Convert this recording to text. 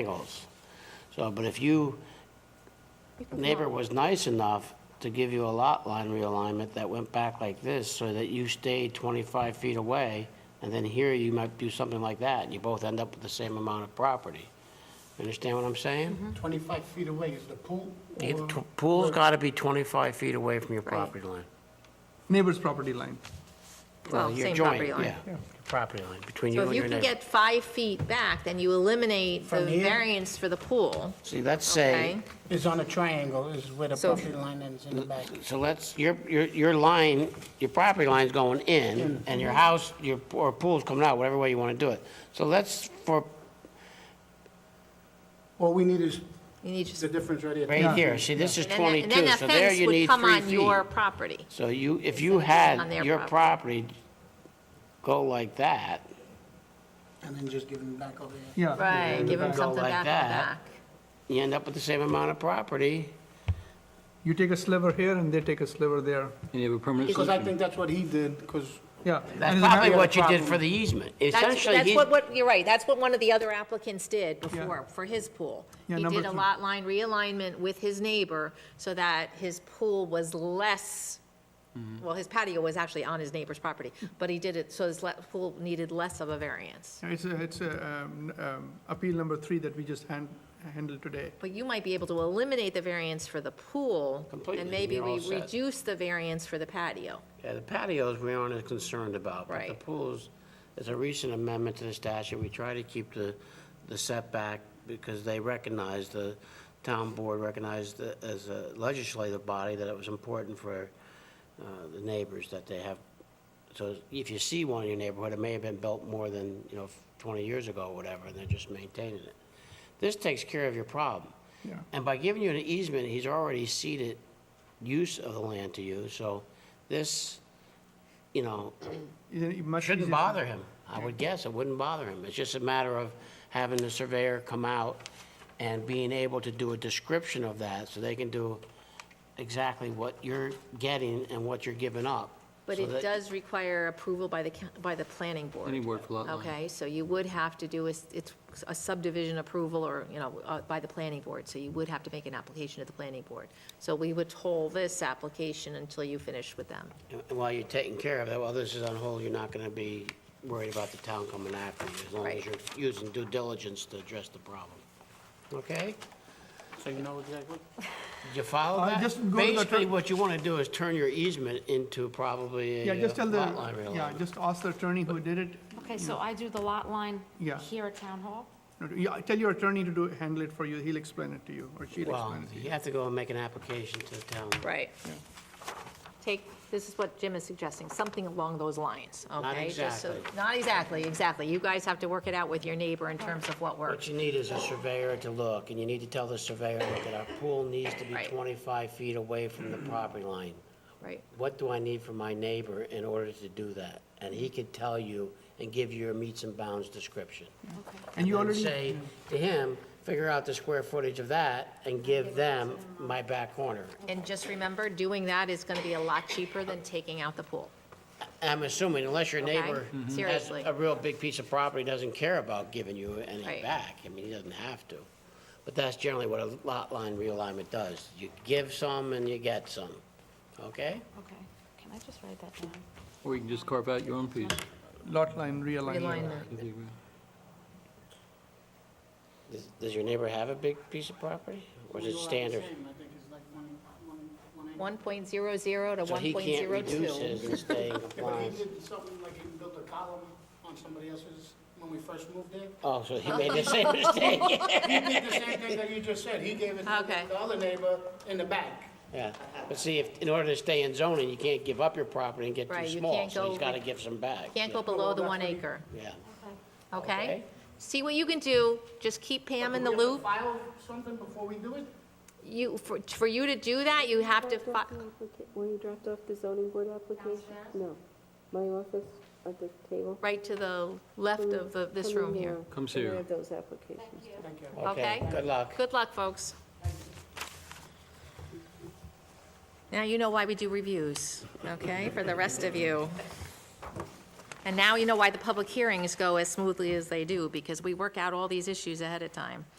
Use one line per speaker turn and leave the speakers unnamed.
angles. So, but if you, neighbor was nice enough to give you a lot line realignment that went back like this, so that you stayed 25 feet away, and then here you might do something like that, and you both end up with the same amount of property. You Understand what I'm saying?
Mm-hmm.
25 feet away is the pool?
The
or-
t- Pool's got to be 25 feet away from your property line.
neighbor's property line.
Well,
Well,
your
same
joint,
property line.
yeah, your Property line, between you
So
and
if you
your
can
neighbor.
get five feet back, then you eliminate the
From here?
variance for the pool,
See, let's say,
okay?
Is on a triangle, is where the
So if-
property line ends in the back.
so let's, your, your, your line, your property line's going in, and your house, your, or pool's coming out, whatever way you want to do it. So let's, for,
All we need is
You need just.
the difference right here.
right here, see, this is
and then
22,
that-
so there you need
And
three
then that fence would come on your
feet.
property.
So you, if you
on
had
their
your property go like that,
And then just give them back over here.
Yeah.
Right, give them
go
something
like
back on the
that.
back.
you end up with the same amount of property.
You take a sliver here and they take a sliver there.
And they were permanent
Because I
solution.
think that's what he did, because
Yeah.
That's
And the ma-
probably
the
what you did
problem-
for the easement.
That's,
Essentially,
that's
he's,
what, what, you're right, that's what one of the other applicants did before, for his pool.
Yeah,
He
number
did a
two.
lot line realignment with his neighbor so that his pool was less,
Mm-hmm.
well, his patio was actually on his neighbor's property, but he did it, so his le- pool needed less of a variance.
It's, a- it's a, um, um, appeal number three that we just hand, handled today.
But you might be able to eliminate the variance for the pool,
Completely,
and maybe
you're all
we
set.
reduce the variance for the patio.
yeah, the patios we aren't as concerned about. But the
Right.
pools, is a recent amendment to the statute. We try to keep the, the setback because they recognize, the town board recognized that as a legislative body that it was important for uh, the neighbors that they have. So if you see one in your neighborhood, it may have been built more than, you know, 20 years ago or whatever, and they're just maintaining it. This takes care of your problem.
Yeah.
And by giving you an easement, he's already ceded use of the land to you, so this, you know,
Is it much
shouldn't
easier-
bother him. I would guess it wouldn't bother him. It's just a matter of having the surveyor come out and being able to do a description of that, so they can do exactly what you're getting and what you're giving up.
But
so
it
that-
does require approval by the, coun- by the planning board.
Planning board for lot line.
Okay, so you would have to do, a s- it's a subdivision approval or, you know, uh, by the planning board, so you would have to make an application to the planning board. So we would hold this application until you finish with them.
And While you're taking care of it, while this is on hold, you're not gonna be worried about the town coming after you, as long as
Right.
you're using due diligence to address the problem. Okay?
so you know exactly.
You follow
Uh,
that?
just go to the
Basically,
tur-
what you want to do is turn your easement into probably
Yeah,
a
just
uh,
tell the,
lot line
yeah,
realignment.
just ask the attorney who did it.
Okay, so I do the lot line
Yeah.
here at Town Hall?
No, Yeah, tell your attorney to do, handle it for you. He'll explain it to you or she'll
Well,
explain it to
you
you.
have to go and make an application to the town.
Right. Take, this is what Jim is suggesting, something along those lines, okay? Just so-
exactly.
Not exactly, exactly. You guys have to work it out with your neighbor in terms of what works.
What you need is a surveyor to look, and you need to tell the surveyor, look, that our pool needs to be
Right.
25 feet away from the property line.
Right,
What do I need from my neighbor in order to do that? And he could tell you and give you your meets and bounds description.
Okay.
And you
then
already,
say to him, figure out the square footage of that and give them my back corner.
and just remember, doing that is going to be a lot cheaper than taking out the pool.
I'm assuming unless your
Okay,
neighbor
Mhm.
has
seriously.
a real big piece of property, doesn't care about giving you any
Right.
back. I mean, he doesn't have to. But that's generally what a lot line realignment does. You give some and you get some, okay?
Okay, can I just write that down?
Or you can just carve out your own piece.
lot line realignment.
Realignment.
If you will.
Does- Does your neighbor have a big piece of property? Or is it standard?
1.00 to 1.02.
So he can't reduce his and stay in
But he
compliance.
did something like he built a column on somebody else's when we first moved there.
Oh, so he made the same mistake?
He did the same thing that you just said. He gave it to
Okay.
the other neighbor in the back.
Yeah. But see, if, in order to stay in zoning, you can't give up your property and get too
Right, you
small.
can't
So he's
go-
got to give some back.
Can't go below the one acre,
Yeah.
okay?
Okay.
See what you can do, just keep Pam in the
Do we have to
loop.
File something before we do it?
You, for, for you to do that, you have to, fi-
When you dropped off the zoning board application? No, my office at the table.
right to the left of the- this
Come in
room here,
now.
Comes
Come in
here.
of those applications.
okay?
Good luck.
Good luck, folks. Now you know why we do reviews, okay, for the rest of you. And now you know why the public hearings go as smoothly as they do, because we work out all these issues ahead of time.